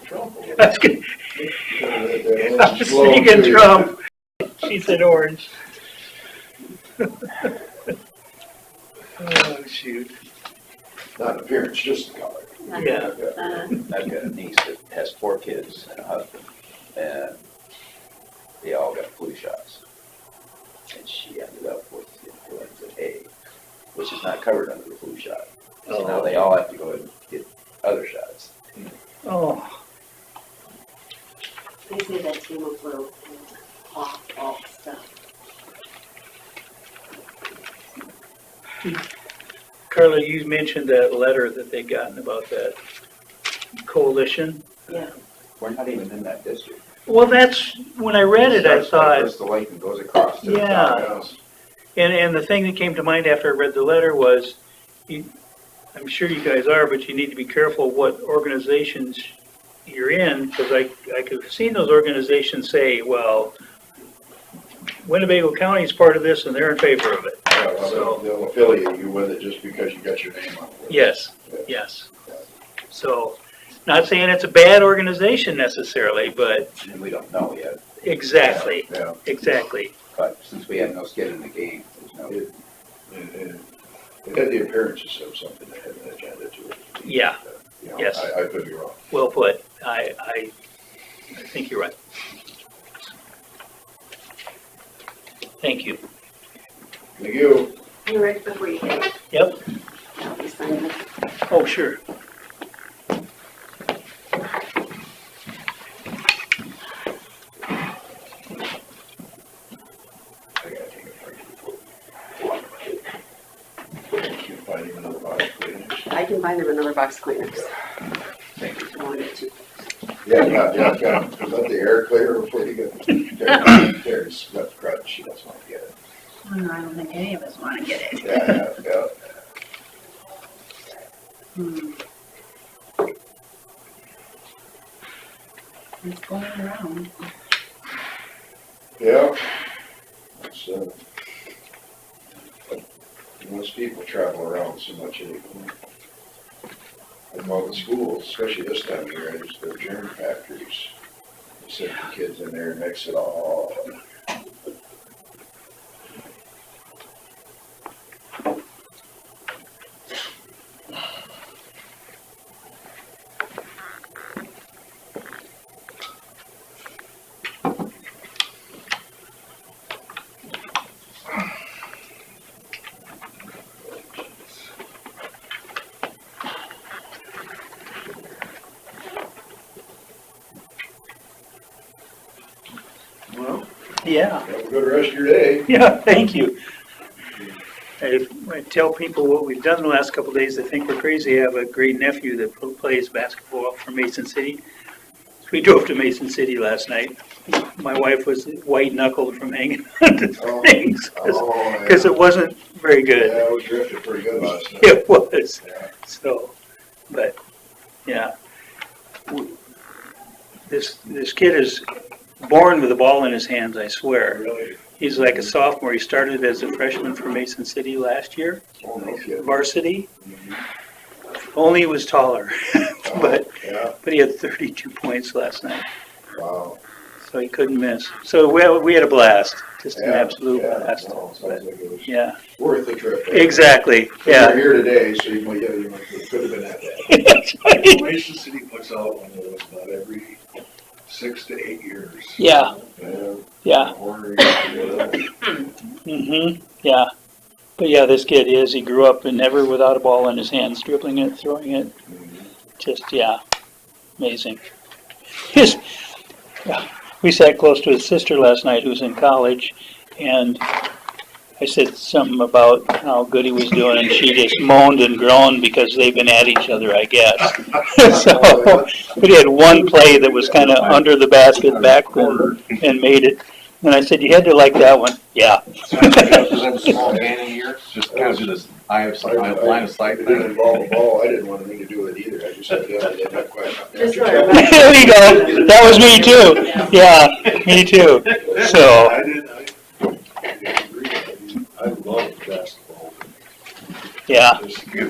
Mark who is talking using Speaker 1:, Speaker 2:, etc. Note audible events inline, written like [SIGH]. Speaker 1: was gonna- I was thinking Trump. She said orange. Oh, shoot.
Speaker 2: Not appearance, just the color.
Speaker 1: Yeah.
Speaker 3: Uh,
Speaker 4: I've got a niece that has four kids and a husband, and they all got flu shots. And she ended up with influenza A, which is not covered under the flu shot. So now they all have to go and get other shots.
Speaker 1: Oh,
Speaker 3: They say that table flow and uh, off, off stuff.
Speaker 1: Carla, you mentioned that letter that they gotten about that coalition.
Speaker 4: We're not even in that district.
Speaker 1: Well, that's, when I read it, I
Speaker 4: Starts by
Speaker 1: thought,
Speaker 4: First the lake and goes across. to the
Speaker 1: Yeah.
Speaker 4: top.
Speaker 1: And, and the thing that came to mind after I read the letter was, you, I'm sure you guys are, but you need to be careful what organizations you're in, because I, I could have seen those organizations say, well, Winnebago County is part of this and they're in favor of it.
Speaker 2: Yeah, well, they'll- Uh, They'll affiliate you with it just because you got your name on it.
Speaker 1: Yes, yes. So, not saying it's a bad organization necessarily, but
Speaker 4: And we don't know yet,
Speaker 1: exactly,
Speaker 2: Yeah.
Speaker 1: exactly.
Speaker 4: but since we have no skin in the game, there's no,
Speaker 2: It it- it had the appearances of something that had an agenda to it. Uh,
Speaker 1: Yeah.
Speaker 2: You know,
Speaker 1: Yes.
Speaker 2: I, I could be wrong.
Speaker 1: Well put. I, I, I think you're right. Thank you.
Speaker 2: Thank you.
Speaker 3: You read before you hit.
Speaker 1: Yep.
Speaker 3: I'll be signing it.
Speaker 1: Oh, sure.
Speaker 2: I gotta take a break. Can you find him another box, please?
Speaker 3: I can buy them another box of Kleenex.
Speaker 4: Thank
Speaker 3: I wanted to.
Speaker 2: Yeah, yeah, yeah, yeah. Let the air clear before you go. There's, that's crutch, she doesn't want to get it.
Speaker 5: I don't know, Oh, I don't think any of us want to get it.
Speaker 2: Yeah, yeah, yeah.
Speaker 5: Hmm. It's going around.
Speaker 2: Yeah. It's, uh, most people travel around so much anymore. And all the schools, especially this time of year, is their germ factories. They Send the kids in there and mix it all. Well,
Speaker 1: Yeah.
Speaker 2: have a good rest of your day.
Speaker 1: [LAUGHS] Yeah, thank you. I I tell people what we've done the last couple of days, they think we're crazy. I have a great nephew that pl- plays basketball for Mason City. So We drove to Mason City last night. My wife was white knuckled from hanging [LAUGHS] on to
Speaker 2: Oh,
Speaker 1: things
Speaker 2: Oh, yeah.
Speaker 1: because it wasn't very good. [LAUGHS]
Speaker 2: Yeah, we drifted pretty good last night.
Speaker 1: It was,
Speaker 2: Yeah.
Speaker 1: so, but, yeah. W- This, this kid is born with a ball in his hands, I swear.
Speaker 2: Really?
Speaker 1: He's like a sophomore, he started as a freshman for Mason City last year,
Speaker 2: Oh, no kidding.
Speaker 1: varsity. Only he was taller, [LAUGHS] but,
Speaker 2: Yeah,
Speaker 1: but he had thirty-two points last night,
Speaker 2: wow.
Speaker 1: so he couldn't miss. So we, we had a blast, just an
Speaker 2: Yeah,
Speaker 1: absolute
Speaker 2: yeah,
Speaker 1: blast.
Speaker 2: no, Sounds like it was
Speaker 1: Yeah,
Speaker 2: worth the trip.
Speaker 1: exactly,
Speaker 2: You're
Speaker 1: yeah. [LAUGHS]
Speaker 2: here today, so you might, yeah, you might, it could have been at that.
Speaker 6: Mason City puts out one of those about every six to eight years.
Speaker 1: Yeah,
Speaker 2: Yeah.
Speaker 1: yeah.
Speaker 2: Ornery, whatever.
Speaker 1: [LAUGHS] Mm-hmm, yeah. But yeah, this kid is, he grew up and never without a ball in his hands, dribbling it, throwing it, just, yeah, amazing. His, we sat close to his sister last night who's in college and I said something about how good he was doing and she just moaned and groaned because they've been at each other, I
Speaker 2: Mm-hmm.
Speaker 1: guess. So, but he had one play that was kind of under the basket backward and made it. And I said, you had to like that one. Yeah.
Speaker 4: [LAUGHS]
Speaker 7: Represent a small man in here, just kind of do this eye of sight, eye of line of sight
Speaker 2: It
Speaker 7: thing.
Speaker 2: didn't involve a ball, I didn't want anything to do with it either, I just said, yeah, they didn't have quite enough.
Speaker 3: Just
Speaker 2: natural
Speaker 3: wanna-
Speaker 2: talent.
Speaker 1: [LAUGHS] There you go. That was me too. Yeah, me too. So,
Speaker 6: I didn't, I, I agree. I love basketball.
Speaker 1: yeah,
Speaker 6: Just give